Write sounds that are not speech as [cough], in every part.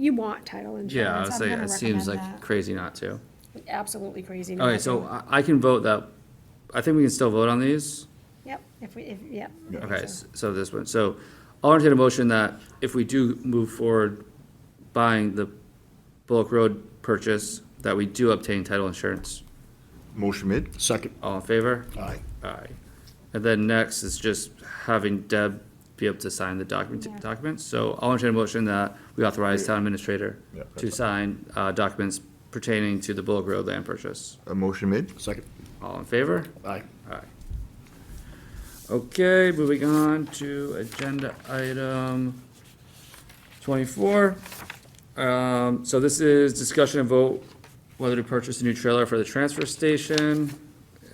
You want title Yeah, insurance. I'd I'm say gonna it seems recommend like crazy not to. that. Absolutely crazy. not Okay, so to. I, I can vote that, I think we can still vote on these. Yep, if we, if, yep. Okay, s- so this one, so I'll entertain a motion that if we do move forward buying the Bullock Road purchase, that we do obtain title insurance. Motion made. Second. All in favor? Aye. Aye. And then next is just having Deb be able to sign the document, Yeah. documents. So I'll entertain a motion that we authorize town administrator Yeah, to that's sign, uh, documents pertaining to the Bullock Road land purchase. A motion made. Second. All in favor? Aye. Aye. Okay, moving on to agenda item twenty-four. Um, so this is discussion and vote whether to purchase a new trailer for the transfer station.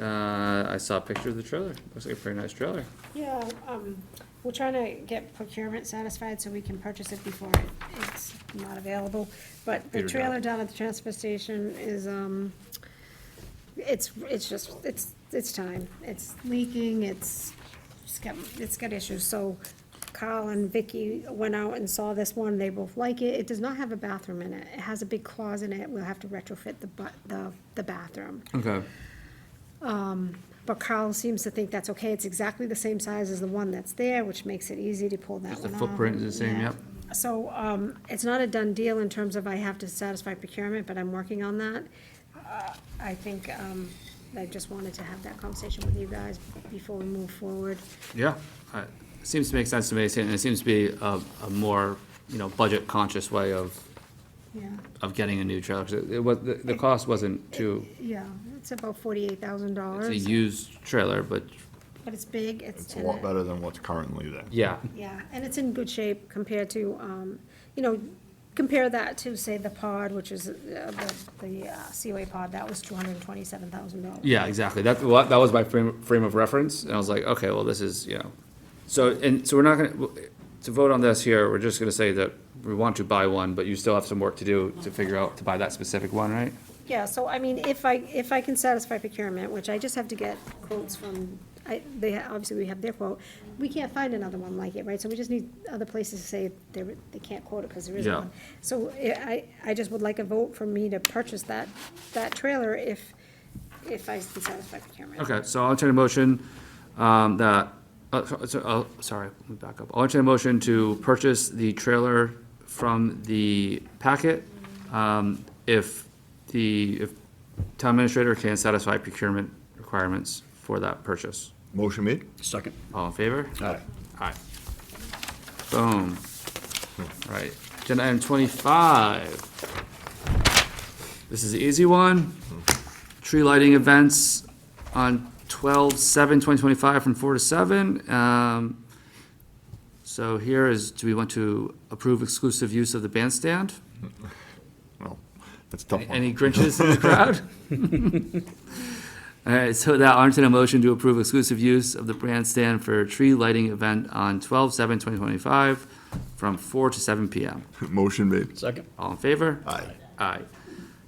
Uh, I saw a picture of the trailer. Looks like a pretty nice trailer. Yeah, um, we're trying to get procurement satisfied so we can purchase it before it- it's not available. But the Peter, no. trailer down at the transfer station is, um, it's, it's just, it's, it's time. It's leaking, it's, it's got, it's got issues. So Carl and Vicky went out and saw this one, they both like it. It does not have a bathroom in it. It has a big closet in it, we'll have to retrofit the bu- the, the bathroom. Okay. But Carl seems to think that's okay, it's exactly the same size as the one that's there, which makes it easy to pull that one Just the off. footprint is the same, Yeah. yep. So, um, it's not a done deal in terms of I have to satisfy procurement, but I'm working on that. Uh, I think, um, I just wanted to have that conversation with you guys before we move forward. Yeah, I- seems to make sense to me, and it seems to be a, a more, you know, budget-conscious way of, Yeah, of getting a new trailer. 'Cause It it was, the, the cost wasn't too, yeah, it's about forty-eight thousand it's a dollars, used trailer, but, but it's big, it's. It's a lot better than what's currently there. yeah. Yeah, and it's in good shape compared to, um, you know, compare that to, say, the pod, which is, uh, the, the uh, Seaway pod, that was two hundred and twenty-seven thousand dollars. Yeah, exactly. That, well, that was my frame, frame of reference, and I was like, okay, well, this is, you know. So, and, so we're not gonna, to vote on this here, we're just gonna say that we want to buy one, but you still have some work to do to figure out to buy that specific one, right? Yeah, so I mean, if I, if I can satisfy procurement, which I just have to get quotes from, I, they, obviously we have their quote, we can't find another one like it, right? So we just need other places to say they, they can't quote it because there isn't Yeah. one. So eh, I, I I just would like a vote for me to purchase that, that trailer if, if I can satisfy procurement. Okay, so I'll entertain a motion, um, that, uh, so- so, oh, sorry, let me back up. I'll entertain a motion to purchase the trailer from the packet, um, if the, if town administrator can satisfy procurement requirements for that purchase. Motion made. Second. All in favor? Aye. Aye. Boom. Right, agenda item twenty-five. This is the easy one. Tree lighting events on 12-7-2025 from four to seven. Um, So here is, do we want to approve exclusive use of the bandstand? Well, that's a tough Any one. Grinches in the crowd? [laughs] All right, so that, I'll entertain a motion to approve exclusive use of the bandstand for a tree lighting event on 12-7-2025 from four to seven P M. [laughs] Motion made. Second. All in favor? Aye. Aye.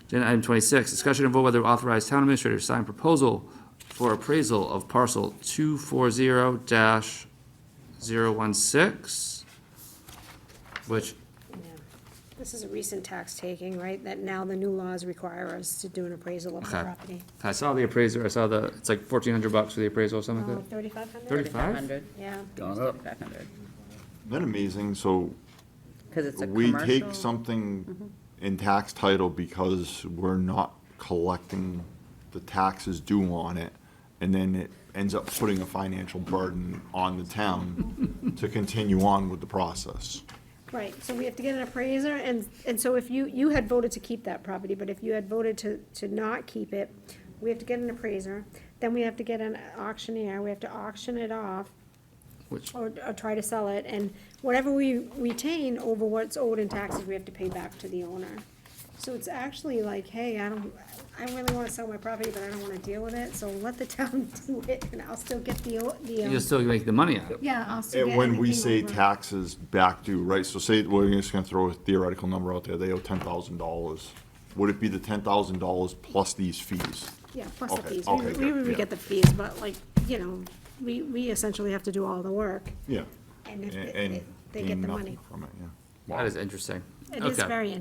Agenda item twenty-six, discussion and vote whether authorize town administrator to sign proposal for appraisal of parcel two four zero dash zero one six, which, Yeah. This is a recent tax taking, right, that now the new laws require us to do an appraisal of the Okay. property. I saw the appraiser, I saw the, it's like fourteen hundred bucks for the appraisal or something like that. Oh, Thirty-five hundred? Thirty-five? 500, Yeah, Gone up. 500, Isn't that amazing? So because it's a we take commercial. something in tax title because we're not collecting the taxes due on it. And then it ends up putting a financial burden on the town to continue on with the process. right, so we have to get an appraiser, and, and so if you, you had voted to keep that property, but if you had voted to, to not keep it, we have to get an appraiser, then we have to get an auctioneer, we have to auction it off, Which, or, or try to sell it, and whatever we retain over what's owed in taxes, we have to pay back to the owner. So it's actually like, hey, I don't, I really wanna sell my property, but I don't wanna deal with it, so let the [laughs] town do it, and I'll still get the, o- the, you'll um, still make the money out of it. yeah, I'll still And get. when we everything say over. taxes back due, right, so say, we're just gonna throw a theoretical number out there, they owe ten thousand dollars. Would it be the ten thousand dollars plus these fees? Yeah, plus the Okay, fees, okay, we, we good, yeah. get the fees, but like, you know, we, we essentially have to do all the work, Yeah. and if, they- A- And they get the gain money. nothing from it, yeah. That is interesting. It is Okay. very